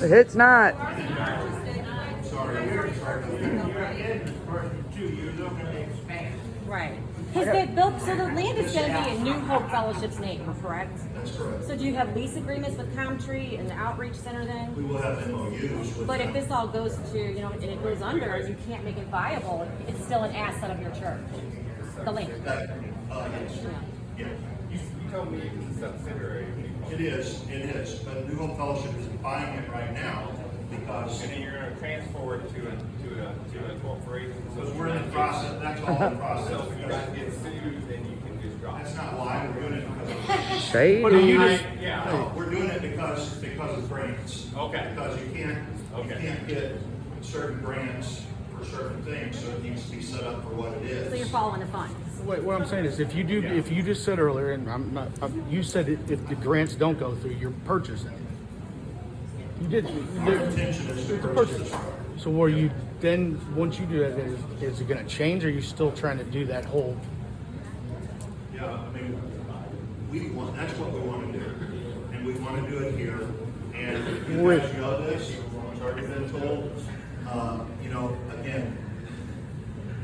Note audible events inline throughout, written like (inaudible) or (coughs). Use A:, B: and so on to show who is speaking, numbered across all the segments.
A: It's not.
B: Sorry, you're, you're a business person too, you're looking to expand.
C: Right. Because they built, so the land is gonna be in New Hope Fellowship's name, correct? That's correct. So do you have lease agreements with Comtree and the outreach center
D: We
C: then?
D: will have MOUs with
C: But
D: them.
C: if this all goes to, you know, and it goes under and you can't make it viable, it's still an asset of your church, the land.
D: That- Uh, yes,
C: Yeah.
D: yes.
E: You, you told me it was a subsidiary. of New Hope.
D: It is, it is, but New Hope Fellowship is buying it right now because,
E: And then you're gonna transfer it to a, to a, to a corporation. so
D: because we're in the process, that's all in process.
E: So if you guys
D: because
E: get sued, then you can just drop it.
D: That's not why we're doing it because,
A: Shade.
F: But do you just,
E: Right, Yeah,
D: no, we're doing it because, because of grants.
E: Okay.
D: Because you can't, you
E: Okay.
D: can't get certain grants for certain things, so it needs to be set up for what it is.
C: So you're following the funds.
F: what, what I'm saying is, if you do, if you just said earlier, and I'm not, I'm, you said it, if the grants don't go through, you're purchasing it. You did. you
D: Our
F: did-
D: intention is to
F: It's a
D: purchase this
F: purchase.
D: property.
F: So were you then, once you do that, is, is it gonna change, or are you still trying to do that whole?
D: Yeah, I mean, we want, that's what we want to do, and we want to do it here, and you guys know this, it's already been told. Uh, you know, again,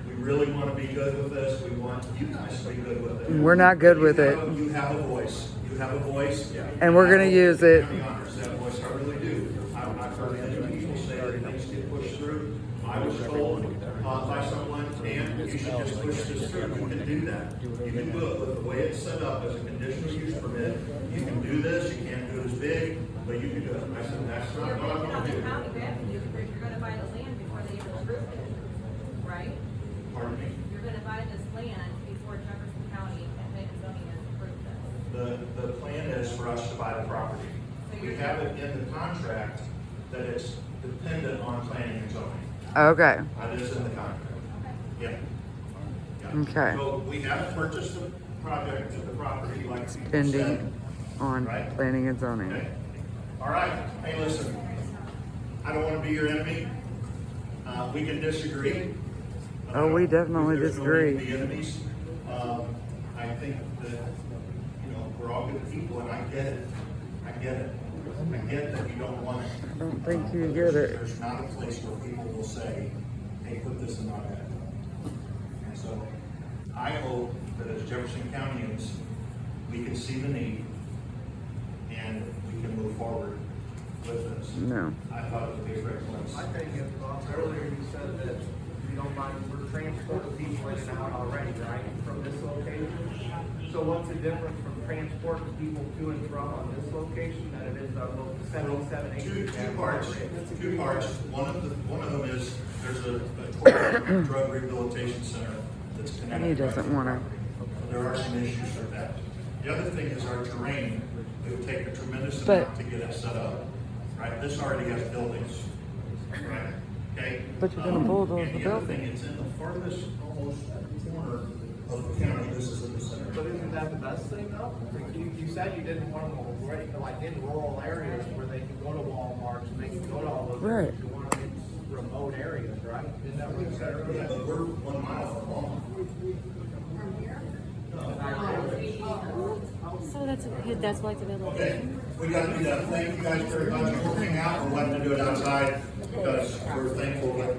D: we really want to be good with this, we want you guys to be good with it.
A: We're not good with
D: You
A: it.
D: have a- You have a voice, you have a voice.
A: And we're gonna use it.
D: I'm honest, that voice, I really do. I've I've heard many people say that things get pushed through. I was told uh, by someone, Dan, you should just push this through, you can do that. You can do it with the way it's set up as a conditional use permit. You can do this, you can't do it as big, but you can do it. I said, that's not what I'm gonna do.
C: revenue because you're gonna buy the land before they even approve it, right?
D: Pardon me?
C: You're gonna buy this land before Jefferson County and Lake Zoning has approved this.
D: The, the plan is for us to buy the property. We have it in the contract that it's dependent on planning and zoning.
A: Okay.
D: That is in the contract. Yeah. Yeah.
A: Okay.
D: So we haven't purchased the project, the property like you said.
A: Pending on planning and zoning.
D: Okay. All right, hey, listen, I don't wanna be your enemy. Uh, we can disagree.
A: Oh, we definitely
D: There's no need to
A: disagree.
D: Be enemies. Um, I think that, you know, we're all good people and I get it. I get it. I get that you don't want it.
A: I don't think you get it.
D: There's not a place where people will say, hey, put this in my bag. And so I hope that as Jefferson Countyans, we can see the need and we can move forward with this.
A: No.
D: I thought it would be a great place.
G: I think if, uh, earlier you said that you don't mind, we're transporting people in and out already, right, from this location? So what's the difference from transporting people to and from on this location than it is on lo- seventy-seven, eighty?
D: Two, two parts, two parts. One of the, one of them is, there's a,
A: (coughs)
D: a corporate drug rehabilitation center that's connected.
A: He doesn't wanna-
D: So There are some issues with that. The other thing is our terrain, it would take a tremendous
A: But-
D: amount to get it set up, right? This already has buildings, right? Okay?
A: But you're gonna
D: Um,
A: bulldoze
D: and
A: the
D: the other
A: building.
D: thing, it's in the farthest almost corner of the county, this is in the center.
G: But isn't that the best thing though? Like, You, you said you didn't want them already, like in rural areas where they can go to Walmart, and they can go to all those. areas.
A: Right.
G: You want them in remote areas, right? Isn't that what you said
D: Yeah,
G: earlier?
D: but we're one mile from home.
C: So that's, that's why it's available.
D: Okay, we gotta do that. Thank you guys very much. We'll hang out. We're letting to do it outside because we're thankful that